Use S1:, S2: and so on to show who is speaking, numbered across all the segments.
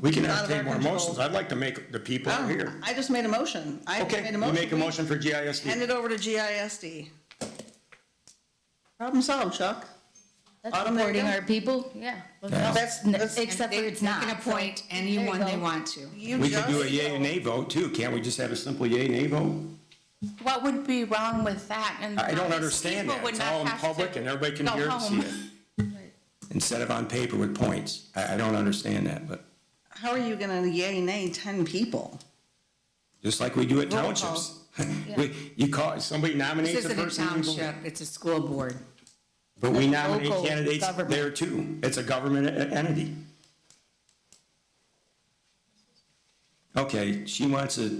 S1: We can
S2: It's out of
S1: entertain
S2: our
S1: more
S2: control.
S1: motions. I'd like to make the people
S2: Oh,
S1: here.
S2: I just made a motion. I
S1: Okay,
S2: made a
S1: you
S2: motion.
S1: make a
S2: We
S1: motion for
S2: Hand
S1: GISD.
S2: it over to GISD. Problem solved, Chuck.
S3: That's
S2: Autumn, there you
S3: supporting
S2: go.
S3: our people, yeah.
S2: That's- that's-
S3: Except for it's not.
S4: They can
S3: so-
S4: appoint
S3: There
S4: anyone
S3: you
S4: they
S3: go.
S4: want to.
S2: You
S1: We could do a
S2: just-
S1: yay or nay vote too. Can't we just have a simple yay, nay vote?
S3: What would be wrong with that? And
S1: I don't
S3: honest,
S1: understand
S3: people
S1: that.
S3: would
S1: It's
S3: not
S1: all in
S3: have to
S1: public and everybody can
S3: go
S1: hear and see
S3: home.
S1: it. Instead of on paper with points. I, I don't understand that, but
S2: How are you gonna yay nay ten people?
S1: just like we do at
S2: Roll call.
S1: townships. We, you call, somebody
S4: This
S1: nominates a
S4: isn't a
S1: person. you vote.
S4: township, it's a school board.
S1: But we nominate
S3: local
S1: candidates
S3: government.
S1: there too. It's a government e- entity. Okay, she wants a,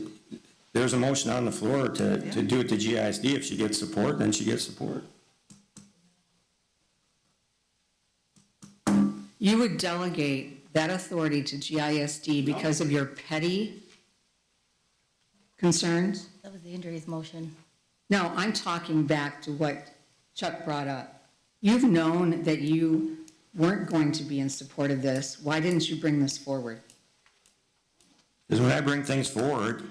S1: there's a motion on the floor to, to do it to GISD. If she gets support, then she gets support.
S4: You would delegate that authority to GISD because of your petty concerns?
S3: That was the injuries motion.
S4: No, I'm talking back to what Chuck brought up. You've known that you weren't going to be in support of this. Why didn't you bring this forward?
S1: Because when I bring things forward,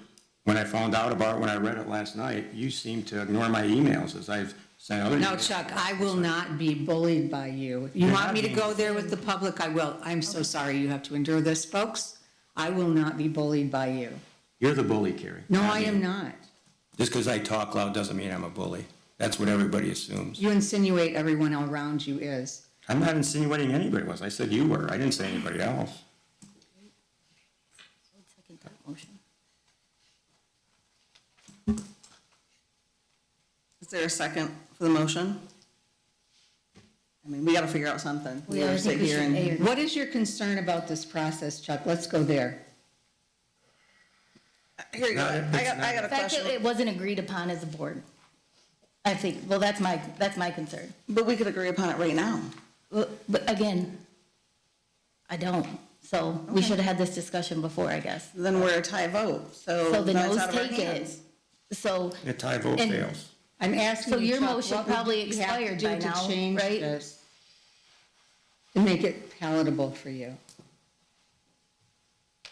S1: when I found out about it, when I read it last night, you seem to ignore my emails as I've sent other.
S4: No,
S1: emails.
S4: Chuck, I will not be bullied by you. You
S1: You're
S4: want
S1: not
S4: me to
S1: being-
S4: go there with the public, I will. I'm so sorry you have to endure this, folks. I will not be bullied by you.
S1: You're the bully, Carrie.
S4: No,
S1: not
S4: I
S1: me.
S4: am not.
S1: Just because I talk loud doesn't mean I'm a bully. That's what everybody assumes.
S4: You insinuate everyone around you is.
S1: I'm not insinuating anybody was. I said you were. I didn't say anybody else.
S3: Second that motion.
S2: Is there a second for the motion? I mean, we gotta figure out something.
S3: We already
S2: sit
S3: think we
S2: here
S3: should
S2: and-
S3: air.
S4: What is your concern about this process, Chuck? Let's go there.
S2: Here you go.
S1: Not if
S2: I
S1: it's
S2: got, I
S1: not-
S2: got a
S3: The fact that
S2: question.
S3: it wasn't agreed upon as a board. I think, well, that's my, that's my concern.
S2: But we could agree upon it right now.
S3: Well, But again, I don't. So we should have had this discussion before, I guess.
S2: Then we're a tie vote, so.
S3: So the
S2: that's
S3: noes
S2: out of our
S3: take it.
S2: hands.
S3: So
S1: A tie vote
S3: And-
S1: fails.
S4: I'm asking
S3: So
S4: you,
S3: your
S4: Chuck,
S3: motion
S4: what would
S3: probably
S4: you have to
S3: expired
S4: do
S3: by
S4: to
S3: now,
S4: change
S3: right?
S4: this To make it palatable for you.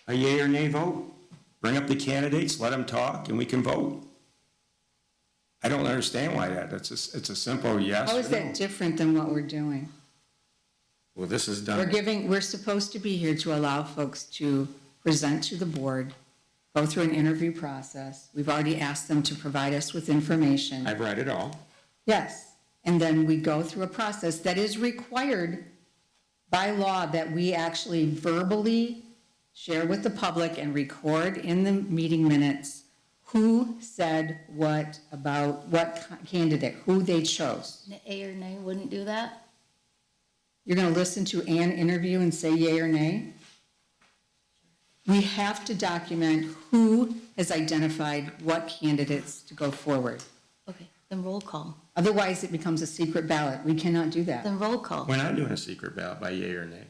S1: A yea or nay vote? Bring up the candidates, let them talk, and we can vote. I don't understand why that. It's a, it's a simple yes
S4: How is
S1: or no.
S4: that different than what we're doing?
S1: Well, this is
S4: We're
S1: done.
S4: giving, we're supposed to be here to allow folks to present to the board, go through an interview process. We've already asked them to provide us with information.
S1: I've read it all.
S4: Yes, and then we go through a process that is required by law that we actually verbally share with the public and record in the meeting minutes who said what about what candidate, who they chose.
S3: A or nay wouldn't do that?
S4: You're gonna listen to an interview and say yay or nay? We have to document who has identified what candidates to go forward.
S3: Okay, then roll call.
S4: Otherwise, it becomes a secret ballot. We cannot do that.
S3: Then roll call.
S1: We're not doing a secret ballot by yea or nay.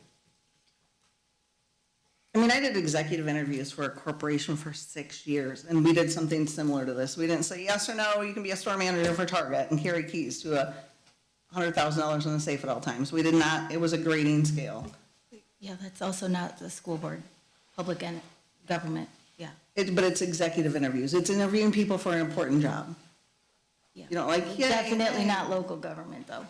S2: I mean, I did executive interviews for a corporation for six years, and we did something similar to this. We didn't say yes or no, you can be a store manager for Target and carry keys to a hundred thousand dollars in the safe at all times. We did not, it was a grading scale.
S3: Yeah, that's also not the school board, public and government, yeah.
S2: It, but it's executive interviews. It's interviewing people for an important job.
S3: yeah.
S2: You don't like, yeah.
S3: Definitely not local government, though.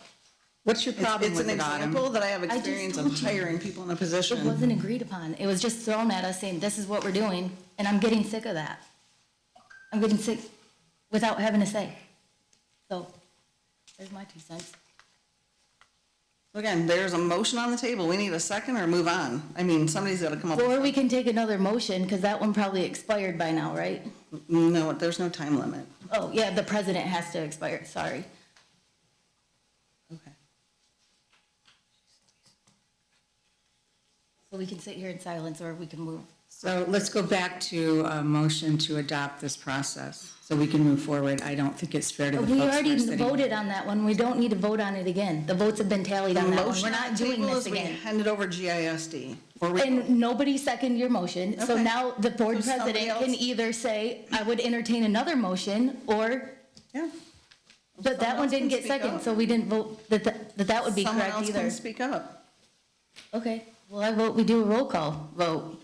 S4: What's your
S2: It's,
S4: problem
S2: it's
S4: with
S2: an
S4: it, Autumn?
S2: example that I have
S3: just
S2: experience of
S3: told you.
S2: hiring people in a
S3: It
S2: position.
S3: wasn't agreed upon. It was just thrown at us saying, this is what we're doing, and I'm getting sick of that. I'm getting sick without having to say. So, there's my two cents.
S2: Again, there's a motion on the table. We need a second or move on. I mean, somebody's gotta come up.
S3: Or we can take another motion, because that one probably expired by now, right?
S2: No, there's no time limit.
S3: Oh, yeah, the president has to expire, sorry.
S2: Okay.
S3: So we can sit here in silence, or we can move.
S4: So let's go back to a motion to adopt this process so we can move forward. I don't think it's fair to the folks
S3: We
S4: who are
S3: already
S4: sitting.
S3: voted on that one. We don't need to vote on it again. The votes have been tallied on that one. We're
S2: Motion on
S3: not
S2: the
S3: doing
S2: table
S3: this
S2: is we
S3: again.
S2: Hand it over GISD. Or we-
S3: And nobody seconded your motion, so
S2: Okay.
S3: now the board
S2: So somebody
S3: president can
S2: else-
S3: either say, I would entertain another motion, or,
S2: Yeah. Someone
S3: but that one
S2: else can
S3: didn't get
S2: speak
S3: second,
S2: up.
S3: so we didn't vote, that, that that would be
S2: Someone
S3: correct
S2: else can
S3: either.
S2: speak up.
S3: Okay, well, I vote we do a roll call vote.